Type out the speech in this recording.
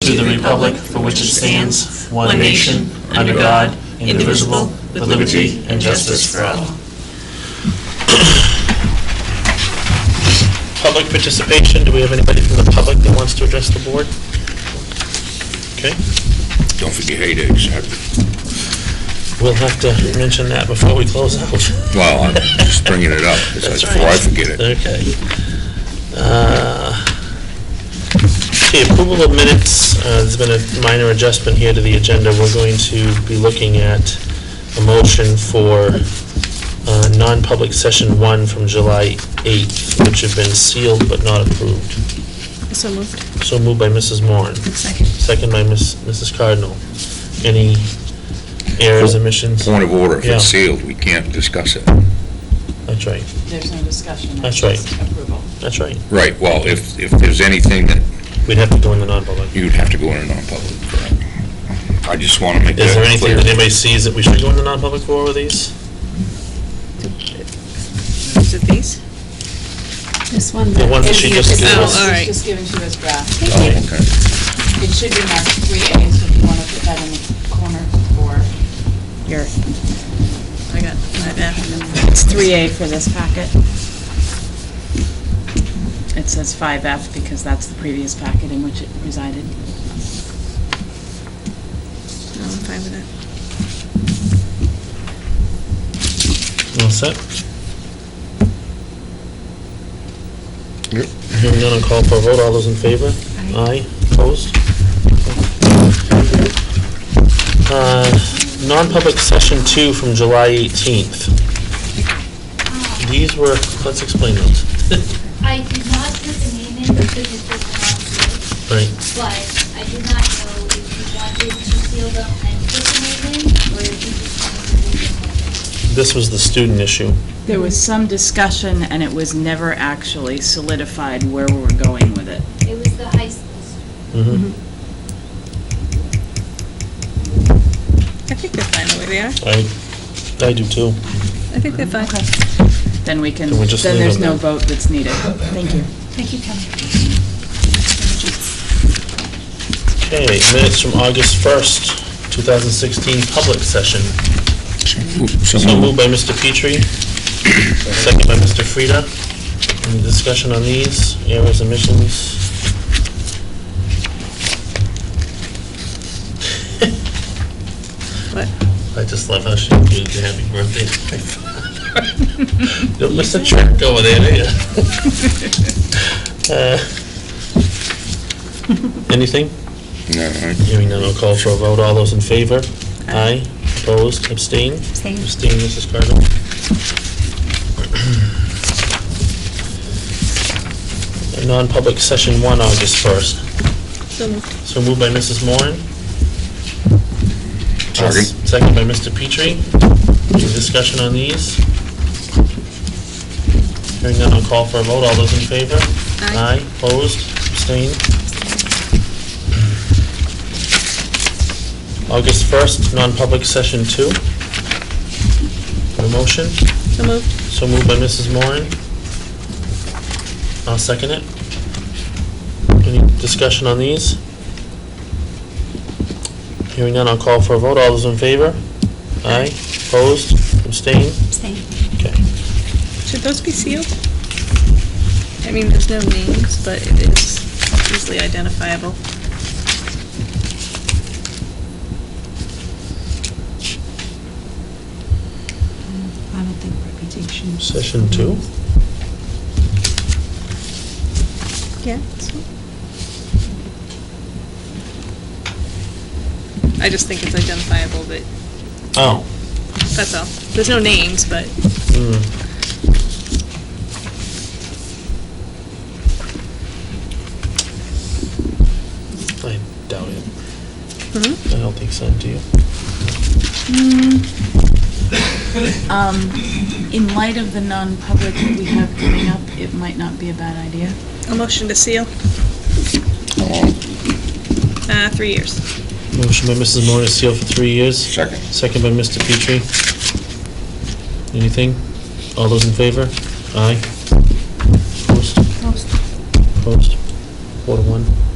to the republic for which it stands, one nation, under God, indivisible, with liberty and justice for all. Public participation, do we have anybody from the public that wants to address the board? Okay, Don't forget headaches. we'll have to mention that before we close out. Well, I'm just bringing it up because That's before I right. forget it. Okay. Uh, Okay, approval of minutes, Uh, there's been a minor adjustment here to the agenda. We're going to be looking at a motion for uh, non-public session one from July 8th, which have been sealed but not approved. So moved. So moved by Mrs. Moran. Second. Second by Ms. Mrs. Cardinal. Any errors, omissions? Point of order, if Yeah. it's sealed, we can't discuss it. That's right, There's no discussion. That's right. It's Approval. that's right. Right, well, if, if there's anything that We'd have to go in the non-public. you'd have to go in a non-public, correct? I just want to make Is there that anything clear. that anybody sees that we should go in the non-public for with these? Is it these? This one. The one that she just gave Oh, us? all right. Just given to us draft. Oh, okay. It should be marked three A, so if you want to put that in the corner for Your, I got my back. it's 3A for this packet. It says 5F because that's the previous packet in which it resided. No, I'm fine with that. All set? Hearing none, I'll call for a vote. All those in favor? Aye. Opposed? Uh, Non-public session two from July 18th. These were, let's explain those. Um, I did not put the name in because it was not sealed, Right. but I did not know if you wanted to seal them and put the name in, or if you just wanted to leave them open. This was the student issue. There was some discussion and it was never actually solidified where we were going with it. It was the high school student. Mhm. I think they're fine the way they are. Mm-hmm. I, I do too. I think they're fine. Then we can, Can we just then leave there's them no there? vote that's needed. Thank you. Okay, minutes from August 1st, 2016, public session. So Mm-hmm. moved by Mr. Petrie, second by Mr. Frida. Any discussion on these, errors, omissions? What? I just love how she did the happy birthday to my father. Don't miss a trick over there, do ya? Uh, Anything? No, I- Hearing none, I'll call for a vote. All those in favor? Aye. Opposed? Abstain? Abstain. Abstain, Mrs. Cardinal. Non-public session one, August 1st. So moved. So moved by Mrs. Moran. Second. Second by Mr. Petrie. Any discussion on these? Hearing none, I'll call for a vote. All those in favor? Aye. Opposed? Abstained? August 1st, non-public session two. A motion? So moved. So moved by Mrs. Moran. I'll second it. Any discussion on these? Hearing none, I'll call for a vote. All those in favor? Aye. Opposed? Abstained? Okay. Should those be sealed? I mean, there's no names, but it is easily identifiable. I don't think reputation. Session two? Yeah. I just think it's identifiable, but Oh. that's all. There's no names, but Hmm. I doubt it. I don't think so, do you? Um, In light of the non-public that we have coming up, it might not be a bad idea. a motion to seal, uh, three years. Motion by Mrs. Moore to seal for three years. Second. Second by Mr. Petrie. Anything? All those in favor? Aye. Opposed? Opposed. Four to one.